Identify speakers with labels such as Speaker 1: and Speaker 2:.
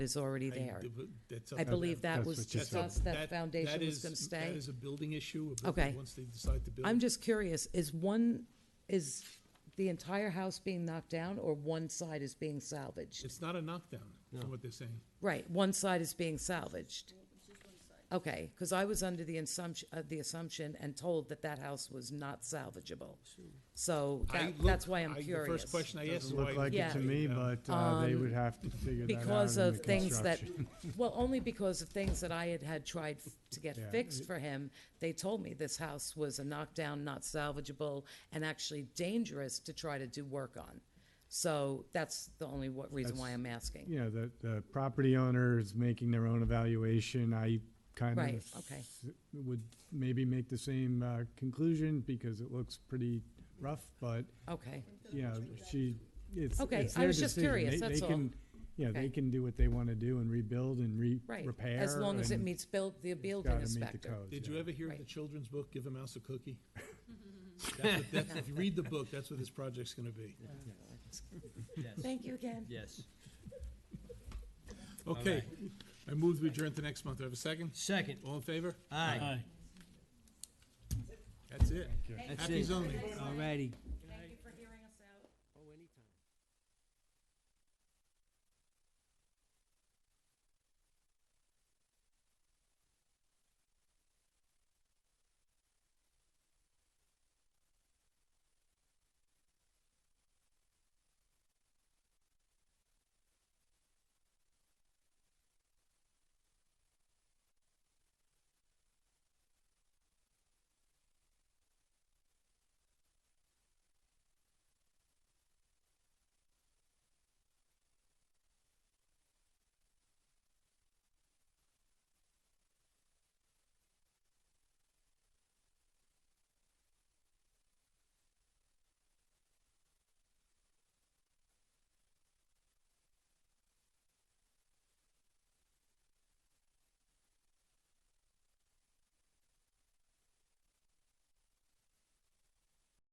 Speaker 1: is already
Speaker 2: I-
Speaker 1: there.
Speaker 2: that's up
Speaker 1: I
Speaker 2: to
Speaker 1: believe
Speaker 2: them.
Speaker 1: that
Speaker 3: That's
Speaker 1: was
Speaker 3: what she
Speaker 1: discussed,
Speaker 3: said.
Speaker 1: that foundation was
Speaker 2: is-
Speaker 1: going to
Speaker 2: That
Speaker 1: stay.
Speaker 2: is a building issue. a
Speaker 1: Okay.
Speaker 2: building- Once they decide to build.
Speaker 1: I'm just curious, is one, is the entire house being knocked down or one side is being salvaged?
Speaker 2: It's not a knockdown, from what they're saying.
Speaker 1: Right, one side is being salvaged. Okay, because I was under the assumption, uh, the assumption and told that that house was not salvageable. So
Speaker 2: I
Speaker 1: that-
Speaker 2: look-
Speaker 1: that's why I'm
Speaker 2: I-
Speaker 1: curious.
Speaker 2: The first question I asked.
Speaker 3: Doesn't
Speaker 2: is why-
Speaker 3: look like it to
Speaker 1: Yeah. Um,
Speaker 3: me, but uh, they would have to figure that out
Speaker 1: because
Speaker 3: in
Speaker 1: of
Speaker 3: the
Speaker 1: things that,
Speaker 3: construction.
Speaker 1: well, only because of things that I had had tried f- to get
Speaker 3: Yeah.
Speaker 1: fixed for him. They told me this house was a knockdown, not salvageable, and actually dangerous to try to do work on. So that's the only wa- reason why
Speaker 3: That's-
Speaker 1: I'm asking.
Speaker 3: You know, the, the property owner is making their own evaluation. I kind of.
Speaker 1: Right, okay.
Speaker 3: Would maybe make the same uh, conclusion because it looks pretty rough, but,
Speaker 1: Okay,
Speaker 3: you know, she, it's,
Speaker 1: Okay,
Speaker 3: it's
Speaker 1: I
Speaker 3: their
Speaker 1: was just
Speaker 3: decision.
Speaker 1: curious,
Speaker 3: They- they
Speaker 1: that's all.
Speaker 3: can- You know,
Speaker 1: Okay.
Speaker 3: they can do what they want to do and rebuild and re,
Speaker 1: right.
Speaker 3: repair.
Speaker 1: As long as it
Speaker 3: and
Speaker 1: meets build, the building
Speaker 3: gotta meet the
Speaker 1: inspector.
Speaker 3: codes,
Speaker 2: Did
Speaker 3: yeah.
Speaker 2: you ever hear of the
Speaker 1: Right.
Speaker 2: children's book, Give a Mouse a Cookie? That's what- that's- If you read the book, that's what this project's going to be.
Speaker 4: Yes,
Speaker 1: Thank you again.
Speaker 4: yes.
Speaker 2: Okay. I move we adjourn to next month. Do I have a second?
Speaker 4: Second,
Speaker 2: All in favor?
Speaker 4: aye.
Speaker 2: That's it.
Speaker 4: That's
Speaker 2: Happy
Speaker 4: it.
Speaker 2: zoning.
Speaker 4: Alrighty.